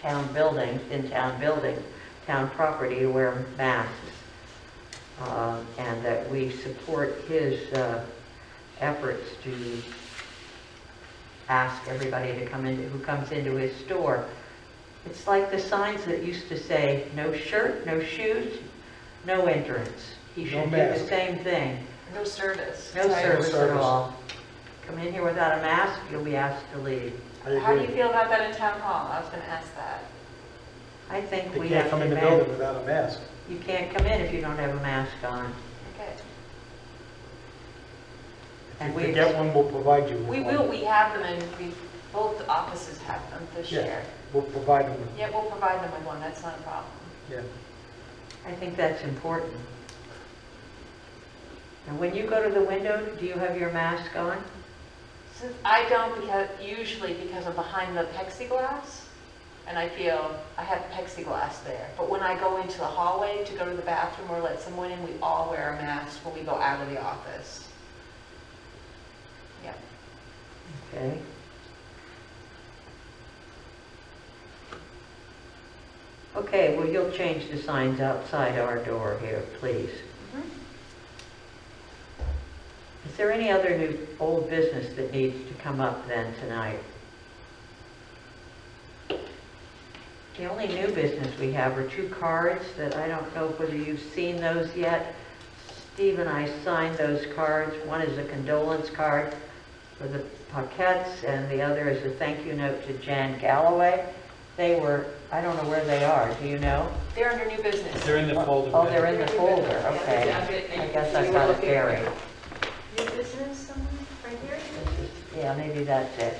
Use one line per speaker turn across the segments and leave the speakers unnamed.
town buildings, in town buildings, town property to wear masks. Uh, And that we support his uh, efforts to ask everybody to come in, who comes into his store. It's like the signs that used to say, no shirt, no shoes, no entrance. He
No
should do the
mask.
same thing.
No service.
No service at
service.
all. Come in here without a mask, you'll be asked to leave.
How do you feel about that in town hall? I was gonna ask that.
I think
They
we
can't
have to
come in the
mandate,
building without a mask.
you can't come in if you don't have a mask on.
Okay.
And
If
we-
you get one, we'll provide you with
We
one.
will, we have them and we, both offices have them this
Yeah.
year.
We'll provide them with,
Yeah, we'll provide them with one, that's not a problem.
yeah.
I think that's important. And when you go to the window, do you have your mask on?
Since I don't because, usually because I'm behind the plexiglass and I feel I have plexiglass there. But when I go into the hallway to go to the bathroom or let someone in, we all wear a mask when we go out of the office. Yeah.
Okay. Okay, well, you'll change the signs outside our door here, please.
Mm-hmm.
Is there any other new, old business that needs to come up then tonight? The only new business we have are two cards that I don't know whether you've seen those yet. Steve and I signed those cards. One is a condolence card for the Paquettes, and the other is a thank you note to Jan Galloway. They were, I don't know where they are, do you know?
They're under new business.
They're in the folder.
Oh, they're in the
They're
folder,
under- yeah,
okay.
yeah, but-
I guess
you
I
were
got it
looking-
buried.
New business, someone, right here?
Yeah, maybe that's it.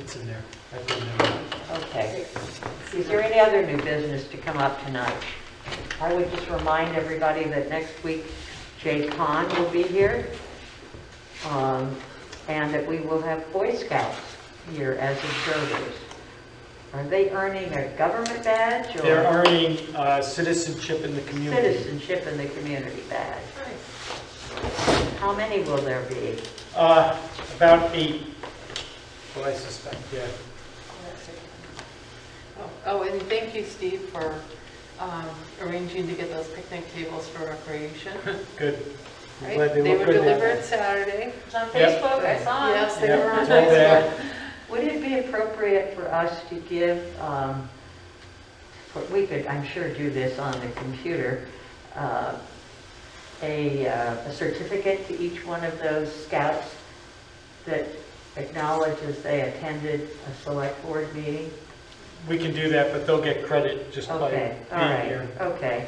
It's in there. I put it in there.
Okay. Is there any other new business to come up tonight? I would just remind everybody that next week Jay Kahn will be here, um, and that we will have Boy Scouts here as observers. Are they earning a government badge
They're
or
earning uh, citizenship in the community.
citizenship in the community badge? How many will there be?
Uh, About eight, what I suspect, yeah.
Oh, and thank you, Steve, for um, arranging to get those picnic tables for recreation.
Good. I'm
Right?
glad
They
look
were
good there.
delivered Saturday.
It's on
Yep.
Facebook, Oh, I saw it.
Yes, they were
Yeah,
on
it's all
Facebook.
there.
Would it be appropriate for us to give, um, for- we could, I'm sure, do this on the computer, uh, a uh, a certificate to each one of those scouts that acknowledges they attended a select board meeting?
We can do that, but they'll get credit just by
Okay, all
being
right,
here.
okay,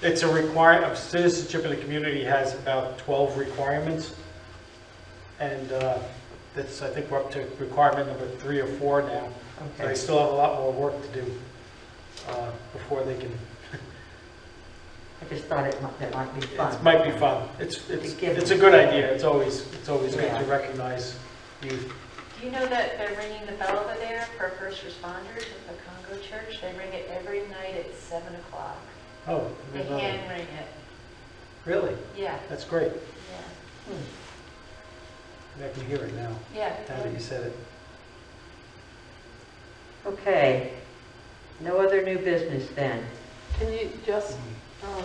It's a require, of citizenship in the community has about 12 requirements. And uh, that's, I think we're up to requirement number three or four now. So they
okay.
still have a lot more work to do uh, before they can
I just thought it might, that might be fun.
It might be fun. It's, it's,
To give-
it's a good idea. It's always, it's always good
Yeah.
to recognize youth.
Do you know that they're ringing the bell over there for first responders at the Congo Church? They ring it every night at 7 o'clock.
Oh, I
They
didn't know that.
hand ring it,
really?
yeah,
That's great.
yeah,
Hmm.
I can hear it now, now
yeah.
that you said it.
Okay, no other new business then?
Can you just, um,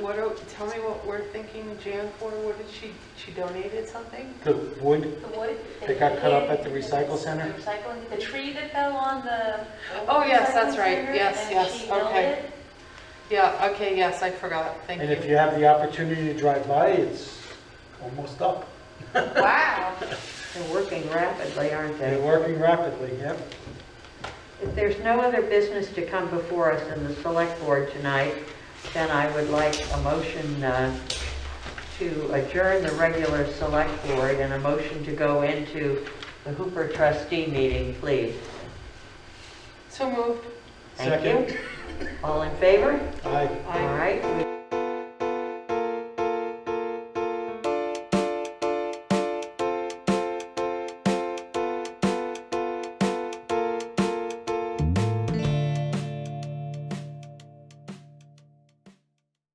what, are- tell me what we're thinking Jan for? What did she, she donated something?
The wood,
The wood.
They got cut up at the recycle center?
The Recycling, the tree that fell on the.
Oh, yes, that's
recycling
right.
center,
Yes,
and
yes,
she milled
okay.
it.
Yeah, okay, yes, I forgot. Thank
and if
you.
you have the opportunity to drive by, it's almost up.
Wow.
They're working rapidly, aren't they?
They're working rapidly, yep.
If there's no other business to come before us in the select board tonight, then I would like a motion uh, to adjourn the regular select board and a motion to go into the Hooper trustee meeting, please.
So moved.
Thank you. All in favor?
Aye.
All right, we